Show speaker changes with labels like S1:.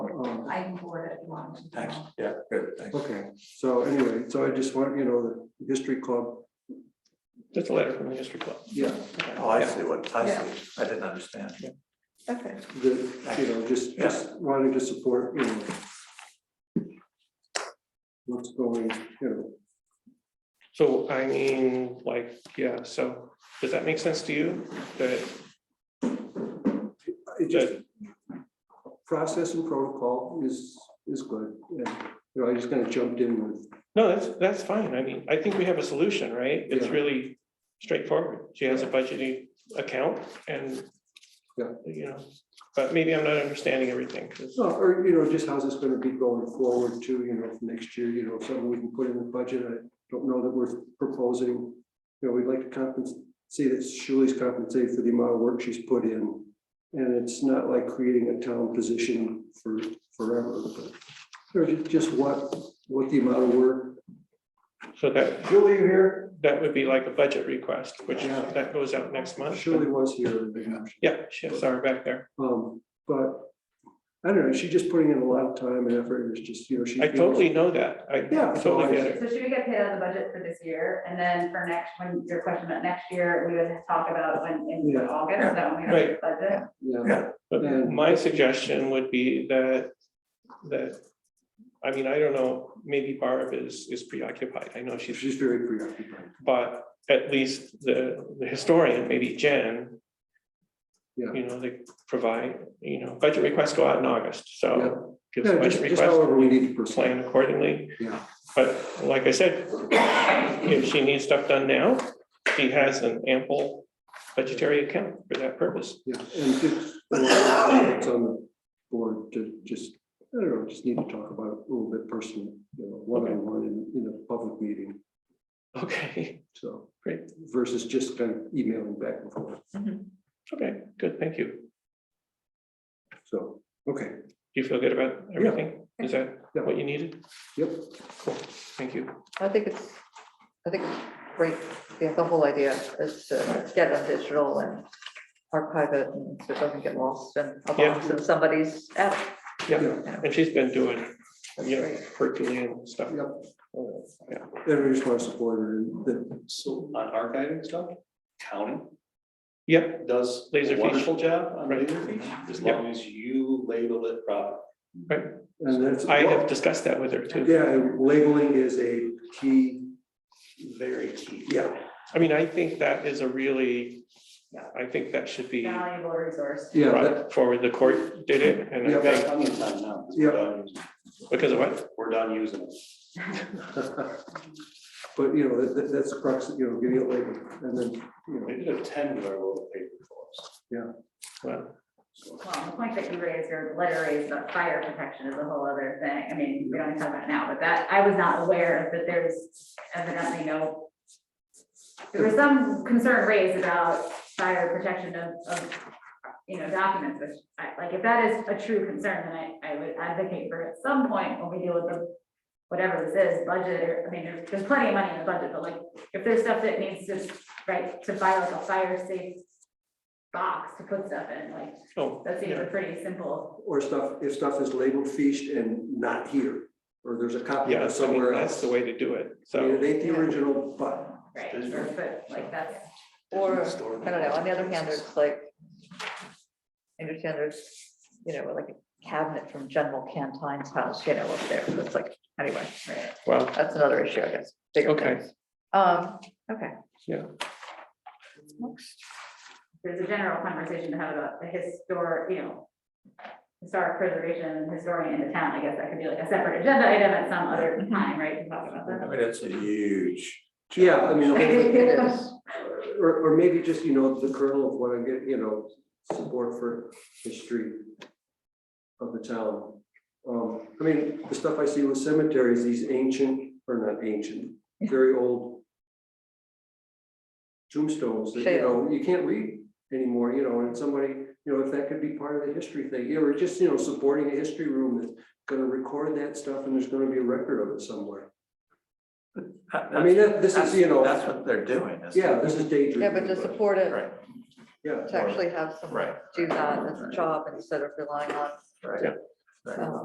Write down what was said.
S1: Um,
S2: I can board it if you want. me to.
S3: Thanks, yeah, good, thanks.
S1: Okay, so anyway, so I just want, you know, the history club,
S4: Just a letter from the history club.
S1: yeah,
S3: Oh, I see what, I see, I didn't understand.
S5: Okay,
S1: the, you know, just, just wanting to support, you know. What's going, you know,
S4: So I mean, like, yeah, so does that make sense to you? That,
S1: it just,
S4: that-
S1: process and protocol is, is good, and, you know, I just kind of jumped in with,
S4: no, that's, that's fine. I mean, I think we have a solution, right? It's
S1: Yeah.
S4: really straightforward. She has a budgeting account and
S1: Yeah.
S4: you know, but maybe I'm not understanding everything. 'cause-
S1: so, or, you know, just how's this gonna be going forward to, you know, for next year, you know, something we can put in the budget, I don't know that we're proposing. You know, we'd like to compensate, see that Shirley's compensated for the amount of work she's put in, and it's not like creating a town position for forever, but. Or ju- just what, what the amount of work,
S4: So that,
S1: Shirley, you here?
S4: that would be like a budget request, which
S1: Yeah.
S4: that goes out next month.
S1: Shirley was here.
S4: Yeah, she has our back there.
S1: Um, but I don't know, she's just putting in a lot of time and effort, and it's just, you know, she.
S4: I totally know that. I
S1: Yeah.
S4: totally get it.
S2: So should we get paid out of the budget for this year? And then for next, when your question about next year, we would talk about when in
S1: Yeah.
S2: August, is that when we have the budget.
S1: Yeah,
S4: But
S1: And-
S4: my suggestion would be that, that, I mean, I don't know, maybe Barb is, is preoccupied, I know she's,
S1: she's very preoccupied.
S4: but at least the, the historian, maybe Jen.
S1: Yeah.
S4: You know, they provide, you know, budget requests go out in August, so give us a
S1: Yeah,
S4: budget
S1: just, just
S4: request,
S1: however we need to proceed.
S4: plan accordingly.
S1: Yeah.
S4: But like I said, if she needs stuff done now, she has an ample budgetary account for that purpose.
S1: Yeah, and just, well, it's on the board to just, I don't know, just need to talk about it a little bit personally, you know, one-on-one in, in a public meeting,
S4: Okay,
S1: so.
S4: Great.
S1: Versus just kind of emailing back and forth,
S4: okay, good, thank you.
S1: so, okay,
S4: Do you feel good about everything? Is that
S1: Yeah.
S4: what you needed?
S1: yep,
S4: Cool, thank you.
S5: I think it's, I think it's great, yeah, the whole idea is to get it digital and archive it, and so it doesn't get lost in a box in somebody's app.
S4: Yeah,
S1: yeah,
S4: and she's been doing,
S5: That's
S4: you know,
S5: great.
S4: Herculean stuff. Uh,
S1: yep,
S4: Yeah,
S1: everybody just wants to support her, and that,
S6: So on archiving stuff, county
S4: Yeah,
S6: does
S4: Laser
S6: a
S4: feature.
S6: wonderful job on
S4: Right.
S6: laser feature, as
S4: Yep.
S6: long as you label it properly.
S1: and that's.
S4: I have discussed that with her too.
S1: Yeah, and labeling is a key,
S6: Very key.
S1: yeah,
S4: I mean, I think that is a really, I think that should be
S2: Valuable resource.
S1: yeah, that-
S4: brought forward. The court did it and
S1: Yeah.
S4: I
S6: We've got
S4: think
S6: plenty of time now. 'cause
S1: Yep.
S6: We're done using
S4: because of what?
S6: it. We're done using it.
S1: But, you know, that, that- that's the crux, you know, getting it labeled, and then, you know,
S6: They did a ten of our little paper for us.
S4: Well,
S6: so.
S2: Well, the point that you raised or the letter raised about fire protection is a whole other thing. I mean, we don't even talk about it now, but that, I was not aware that there's evidently no. There was some concern raised about fire protection of, of, you know, documents, which I, like, if that is a true concern, then I, I would advocate for at some point when we deal with the. Whatever this is, budget, or, I mean, there's, there's plenty of money in the budget, but like, if there's stuff that needs to, right, to buy like a fire safe. Box to put stuff in, like,
S4: oh,
S2: that seems
S4: yeah.
S2: a pretty simple,
S1: or stuff, if stuff is labeled feast and not here, or there's a copy of
S4: yeah,
S1: it
S4: so I mean,
S1: somewhere
S4: that's
S1: else.
S4: the way to do it.
S1: I mean,
S4: So,
S1: it ain't the original, but,
S2: right,
S6: There's
S2: or,
S6: no-
S2: but like that's,
S5: Or, I don't know, on the other hand, there's like, I understand there's, you know, like a cabinet from General Cantine's house, you know, up there, so it's like, anyway,
S2: right,
S4: well,
S5: that's another issue, I guess, bigger
S4: Okay.
S5: things. Um, okay.
S4: Yeah.
S2: there's a general conversation to have about the historic, you know. Historic preservation and historian in the town, I guess that could be like a separate agenda item at some other time, right, to talk about
S3: I
S2: that.
S3: mean, it's a huge.
S1: yeah, I mean, the whole-
S5: It is,
S1: or, or maybe just, you know, the kernel of what I'm getting, you know, support for history of the town. Um, I mean, the stuff I see with cemeteries, these ancient, or not ancient, very old tombstones that, you know, you can't read anymore, you know, and somebody, you know, if that could be part of the history thing, you know, or just, you know, supporting a history room that's gonna record that stuff and there's gonna be a record of it somewhere. I mean, that- this is, you know,
S3: That's what they're doing. isn't it?
S1: yeah, this is daydreaming.
S5: yeah, but to support it,
S3: Right,
S1: Yeah.
S5: to actually have someone
S3: right.
S5: do that as a job instead of relying on
S3: Right.
S5: um,